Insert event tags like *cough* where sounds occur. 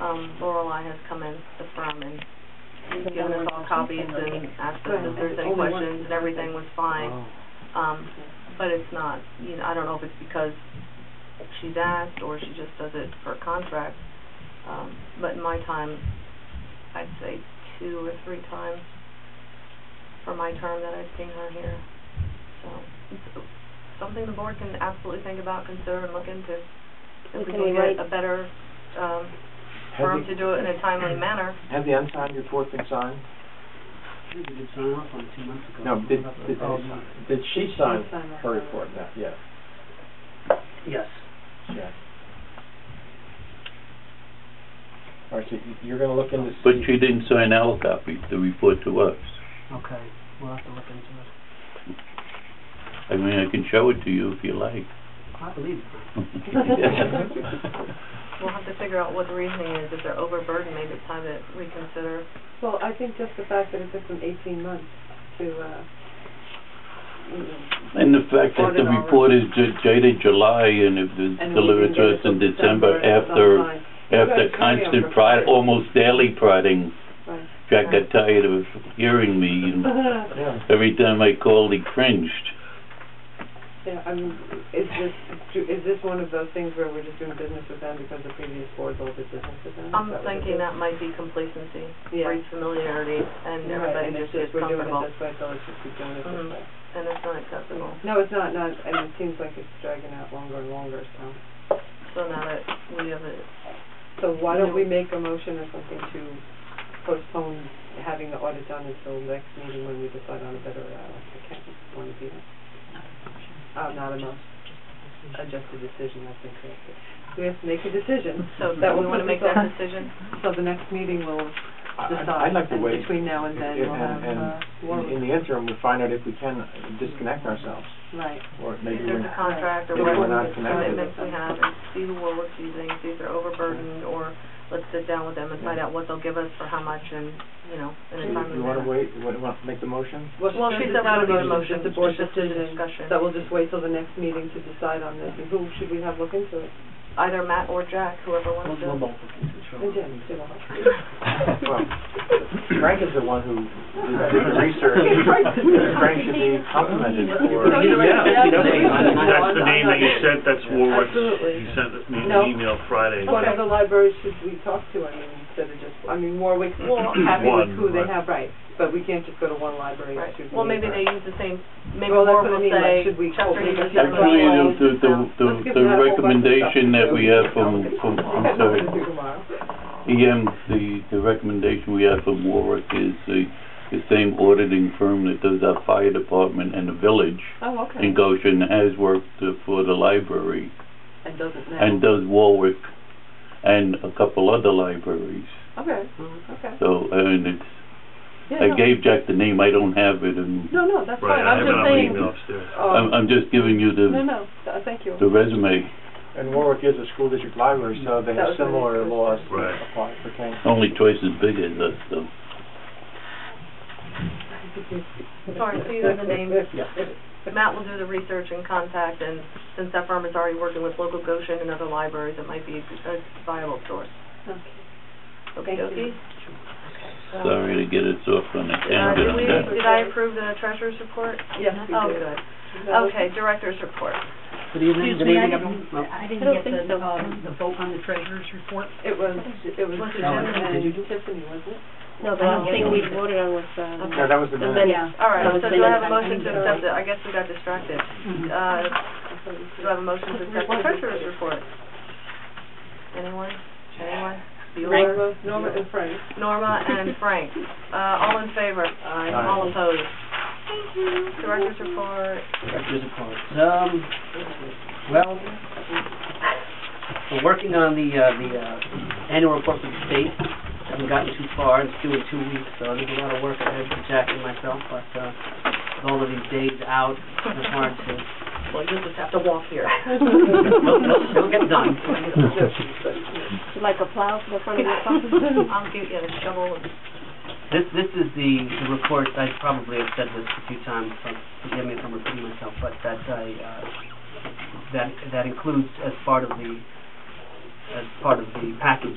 um, Lorelei has come in, the firm, and given us all copies *laughs* and asked us if there's any questions, and everything was fine. Oh. Um, but it's not, you know, I don't know if it's because she's asked, or she just does it for a contract. Um, but in my time, I'd say two or three times for my term that I've seen her here. So, it's something the board can absolutely think about, consider, and look into. If we Can we can get write- a better, um, Have firm the- to do it in a timely manner. Have the unsigned report been signed? We did sign off on it two months ago. No, did, did, Oh, did she sign She signed her it. report? No, yeah, Yes. yeah. All right, so you- you're gonna look into. But see- she didn't sign our copy, the report to us. Okay, we'll have to look into it. I mean, I can show it to you if you like. I believe it. We'll have to figure out what the reasoning is, if they're overburdened, maybe it's time to reconsider. Well, I think just the fact that it took them eighteen months to, uh, you know, And the fact that the report is ju- dated July and it was and we delivered didn't get to it us in till December that's after, fine. after Right, constant carryover. prod, almost daily prodding. Right. Jack got tired of hearing me *laughs* and Yeah, every time I called, he cringed. Yeah, I mean, is this, do- is this one of those things where we're just doing business with them because the previous boards all did business with them? Is I'm that what it thinking is? that might be complacency, Yeah. breeds familiarity, and everybody Right, and it's just gets we're doing it comfortable, this way, so let's just keep doing it this Mhm. way. and it's not acceptable. No, it's not, not, and it seems like it's dragging out longer and longer, so. So now that we have it, So why don't we make a motion or something to postpone having the audit done until next meeting when we decide on a better, uh, account, want to do that? Uh, not a motion, uh, just a decision, I think, correct. We have to make a *laughs* decision, so That do we will want to put make this that on. *laughs* decision? so the next meeting will I- decide. I'd like to and wait. Between now and then, And- we'll have, and- uh, In in Warwick. the interim, we find out if we can disconnect ourselves, Right. or If maybe we're there's a contract or Maybe what we're not connected. commitments we have, and see who we're using, see if they're overburdened, or let's sit down with them and find out what they'll give us for how much and, you know, in a You timely you wanna manner. wait, you wanna make the motion? Well, she said not we don't need a motion, motion, it's a board just a decision, discussion. so we'll just wait till the next meeting to decide on this, and who should we have look into it? Either Matt or Jack, whoever We'll wants we'll to. both look into it, And sure. Jim, do the whole- *laughs* Well, Frank is the one who did *laughs* the research. Frank should be complimented for. No, you're right. Yeah, Yeah, you know, absolutely. No, he's- I'm- That's the name I'm that you not- sent, that's Warwick's, Absolutely. he sent me an No. email Friday. What other libraries should we talk to, I mean, instead of just, I mean, Warwick's happy with One, who they right. have, right, but we can't just go to one library and Right, *laughs* shoot. well, maybe they use the same, maybe Well, that's Warren what I will mean, like, say, should we Chester hold it uses against this the Actually, one. wall? the, the, the- Let's the, give the them a whole bunch of recommendation stuff to that do. we have from, *laughs* from, That's I'm what we sorry, do tomorrow. EM, the, the recommendation we have from Warwick is the, the same auditing firm that does our fire department and the village Oh, okay. in Goshen has worked uh, for the library And doesn't now. and does Warwick and a couple other libraries. Okay, okay. So, and it's, Yeah, I no. gave Jack the name, I don't have it, and No, no, that's Right, fine, I I'm have it just on my saying. Oh. email upstairs. I'm, I'm just giving you No, the, no, th- thank you. the resume. And Warwick is a school district library, so they That was my have similar next laws Right. apply for Kane. Only twice as big as us, though. *laughs* Sorry, so you have the name. Yeah. Matt will do the research and contact, and since that firm is already working with local Goshen and other libraries, it might be a viable source. Okay. Okay, Thank you. okay. Sorry to get us off on a Uh, tangent did on we, that. did I approve the treasurer's report? Yes, we Oh, did. good. That was- Okay, director's report. Good evening, Excuse good me, I evening, didn't, everyone. Well, I I don't didn't get think the, so. um, the vote on the treasurer's report. It was, it was Was it Jim Jim? Did you and do- Tiffany, wasn't it? No, the Uh, only thing we Okay. voted on was, um, No, that was the the minute. minutes. Yeah. All right, That was so the do I have a minutes. motion to accept it? I guess we got distracted. Mhm. Uh, I thought you do I have a motion to accept the treasurer's report? Anyone? Anyone? said- Bueller? Norma, Norma and Frank. Norma *laughs* and Frank. Uh, all in favor? Aye. All opposed? Thank you. Director's report. Here's a card. Um, well, we're working on the, uh, the, uh, annual report for the state. Haven't gotten too far, it's due in two weeks, so there's a lot of work ahead for Jack and myself, but, uh, with all of these days out, it's hard to Well, you just have to walk *laughs* here. Nope, nope, it'll get done. like a plow for the front *laughs* of your car. I'll give you a shovel. This, this is the, the report, I probably have said this a few times, so forgive me if I'm repeating myself, but that I, uh, that, that includes as part of the, as part of the package,